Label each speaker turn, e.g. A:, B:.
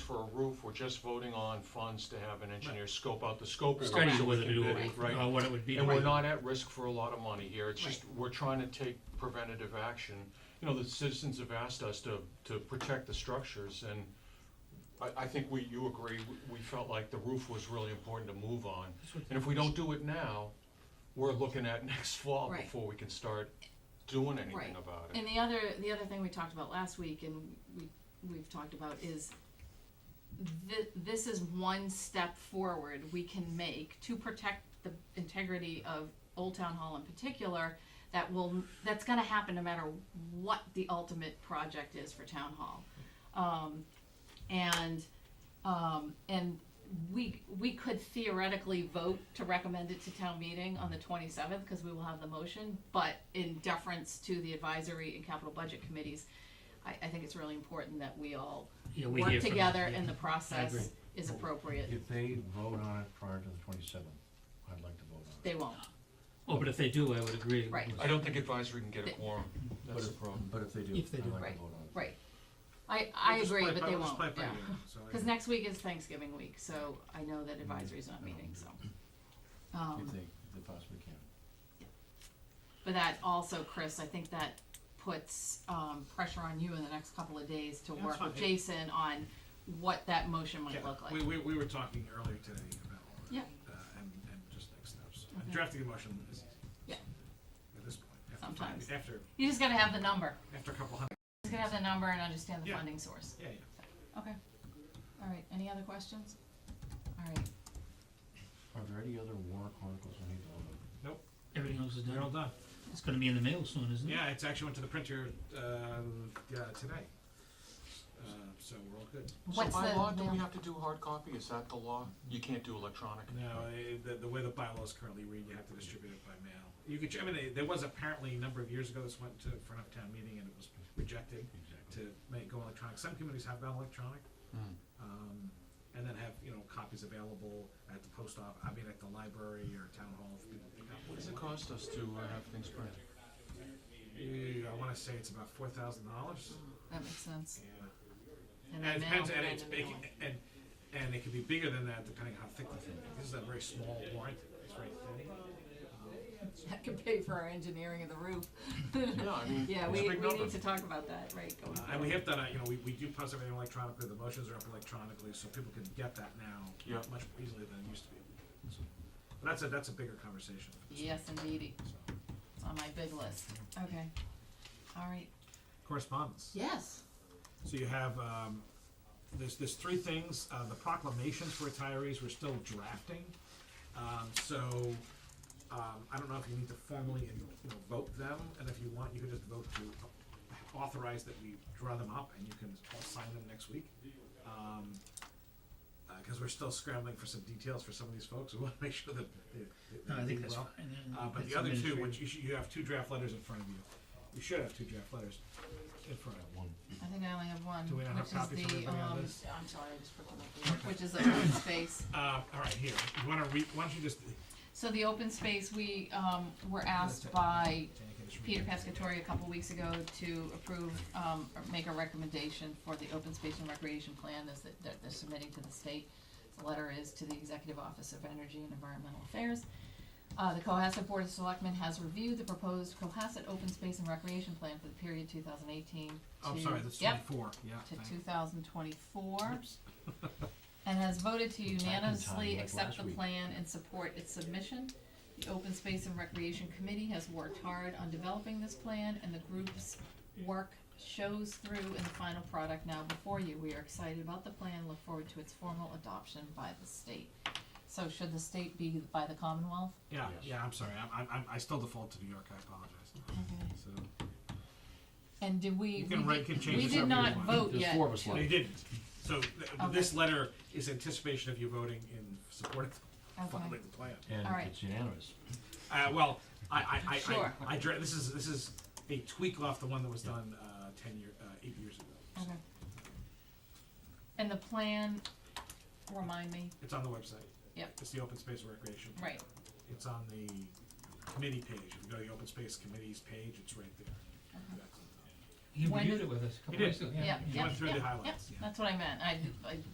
A: for a roof, we're just voting on funds to have an engineer scope out the scope. of it
B: Study
A: so
B: what
A: we
B: to
A: can
B: do,
A: bid it, Right,
B: or what it would be.
A: and we're
B: right.
A: not at risk for a lot of money here, it's just,
C: Right.
A: we're trying to take preventative action. You know, the citizens have asked us to, to protect the structures, and I, I think we, you agree, we- we felt like the roof was really important to move on. And if we don't do it now, we're looking at next fall
C: Right.
A: before we can start doing anything
C: Right.
A: about it.
C: And the other, the other thing we talked about last week and we, we've talked about is thi- this is one step forward we can make to protect the integrity of Old Town Hall in particular, that will, that's gonna happen no matter what the ultimate project is for Town Hall. Um, and, um, and we, we could theoretically vote to recommend it to town meeting on the twenty-seventh, cause we will have the motion, but in deference to the advisory and capital budget committees, I, I think it's really important that we all
B: Yeah, we
C: work
B: hear from-
C: together
B: yeah.
C: and the
B: agree.
C: process is appropriate.
D: If they vote on it prior to the twenty-seventh, I'd like to vote on it.
C: They won't,
B: Oh, but if they do, I would agree.
C: Right.
A: I don't think advisory can get a quorum,
D: But
A: that's the
D: if-
A: problem.
D: But if they do,
B: If they do.
D: I'd like
C: Right.
D: to vote on it.
C: right. I, I
E: We'll just
C: agree,
E: play it
C: but
E: by-
C: they
E: we'll
C: won't,
E: just play it by
C: yeah.
E: ear, so I-
C: Cause next week is Thanksgiving week, so I know that advisory's not
B: Mm-hmm.
C: meeting, so. Um,
D: If they, if they possibly can.
C: But that also, Chris, I think that puts um pressure on you in the next couple of days to
E: Yeah,
C: work
E: that's
C: with
E: fine.
C: Jason on what that motion might
E: Yeah,
C: look like.
E: We, we, we were talking earlier today about all that.
C: Yeah.
E: uh, And, and just next steps.
C: Okay.
E: Drafting a motion is easy.
C: Yeah.
E: At this point. after-
C: Sometimes.
E: After,
C: You just gotta have the number,
E: after a couple hundred,
C: you just gotta have the number and understand the
E: Yeah.
C: funding source.
E: yeah, yeah.
C: Okay, alright, any other questions? Alright,
D: Are there any other warrant articles we need to vote on?
B: Everything else is
E: They're all
B: done.
E: done.
B: It's gonna be in the mail soon, isn't it?
E: Yeah, it's actually went to the printer, um, yeah, today. Uh, so we're all good.
A: So
C: what's the?
A: by law, do we have to do hard copy, is that the law? You can't do electronic?
E: No, eh, the, the way the bylaws currently read, you have to distribute it by mail. You could, I mean, eh, there was apparently a number of years ago, this went to front of town meeting and it was rejected to make, go electronic. Some communities have gone electronic,
A: Hmm.
E: um, and then have, you know, copies available at the post office, I mean, at the library or town hall. if people pick up.
A: What does it cost us to uh, have things printed?
E: Eh, I wanna say it's about four thousand dollars.
C: That makes sense,
E: Yeah.
C: and
E: And
C: then
E: it
C: now,
E: depends, and it's
C: and
E: big, and, and it could be bigger than that depending how thick the thing is. This is a very small warrant, Uh, it's very thin.
C: that could pay for our engineering of the roof.
A: Yeah, I mean, it's
C: Yeah,
A: a
C: we,
A: big
C: we
A: number.
C: need to talk about that, right, going
E: Uh,
C: forward.
E: And we have done, a- you know, we, we do post everything electronically, the motions are up electronically, so people can get that now
A: Yeah.
E: much more easily than it used to be. So- But that's a, that's a bigger conversation.
C: Yes, indeedy,
E: So,
C: it's on my big list, okay, alright,
E: Correspondence.
C: yes,
E: So you have, um, there's, there's three things, uh, the proclamations for retirees, we're still drafting. Um, so, um, I don't know if you need to formally, you know, vote them, and if you want, you could just vote to authorize that we draw them up, and you can all sign them next week. Um, uh cause we're still scrambling for some details for some of these folks, we wanna make sure that they, they-
B: No, I
E: they
B: think
E: do
B: that's fine.
E: well.
B: and
E: Uh, but
B: that's
E: the other two,
B: administrative.
E: which you should, you have two draft letters in front of you, you should have two draft letters in front of you.
D: One.
C: I think I only have one,
E: Do we not have
C: which is
E: copies of
C: the,
E: everything on
C: um,
E: this?
C: I'm sorry, I just put them up there, which is the open space.
E: Uh, all right, here. You want to read? Why don't you just?
C: So the open space, we, um, were asked by Peter Pescatori a couple weeks ago to approve, um, or make a recommendation for the open space and recreation plan is that, that they're submitting to the state. The letter is to the Executive Office of Energy and Environmental Affairs. Uh, the Cohasset Board of Selectmen has reviewed the proposed Cohasset Open Space and Recreation Plan for the period two thousand eighteen to.
E: Oh, sorry, that's
C: Yep,
E: twenty-four. Yeah.
C: to
E: thank
C: two
E: you.
C: thousand twenty-four. And has voted to unanimously
D: like
C: accept
D: last
C: the
D: week.
C: plan and support its submission. The Open Space and Recreation Committee has worked hard on developing this plan and the group's work shows through in the final product now before you. We are excited about the plan, look forward to its formal adoption by the state. So should the state be by the Commonwealth?
E: Yeah,
D: Yes.
E: yeah. I'm sorry. I'm, I'm, I still default to New York. I apologize.
C: Okay.
E: So
C: And did we,
E: you
C: we
E: can write, can
C: did,
E: change.
C: we
E: this
C: did
E: however
C: not
E: you want.
C: vote
D: There's
C: yet.
D: four of us
C: to-
E: No, you didn't. So th-
C: Okay.
E: this letter is anticipation of you voting in support of
C: Okay.
E: funding the plan.
D: And
C: All right.
D: it's unanimous.
E: Uh, well, I, I, I,
C: Sure.
E: I, I, dra- this is this is a tweak off the one that was done uh, ten year, uh, eight years ago. So
C: Okay. And the plan, remind me,
E: It's on the website.
C: Yep.
E: It's the open space and recreation.
C: right,
E: It's on the committee page. If you go to the open space committees page, it's right there. That's on top.
B: He
C: when
B: reviewed
C: did-
B: it with us a couple
E: He
B: weeks
E: did.
B: ago,
C: yeah, yeah,
E: You
C: yeah,
E: went through the
C: yeah,
E: highlights, yeah.
C: that's what I meant, I, I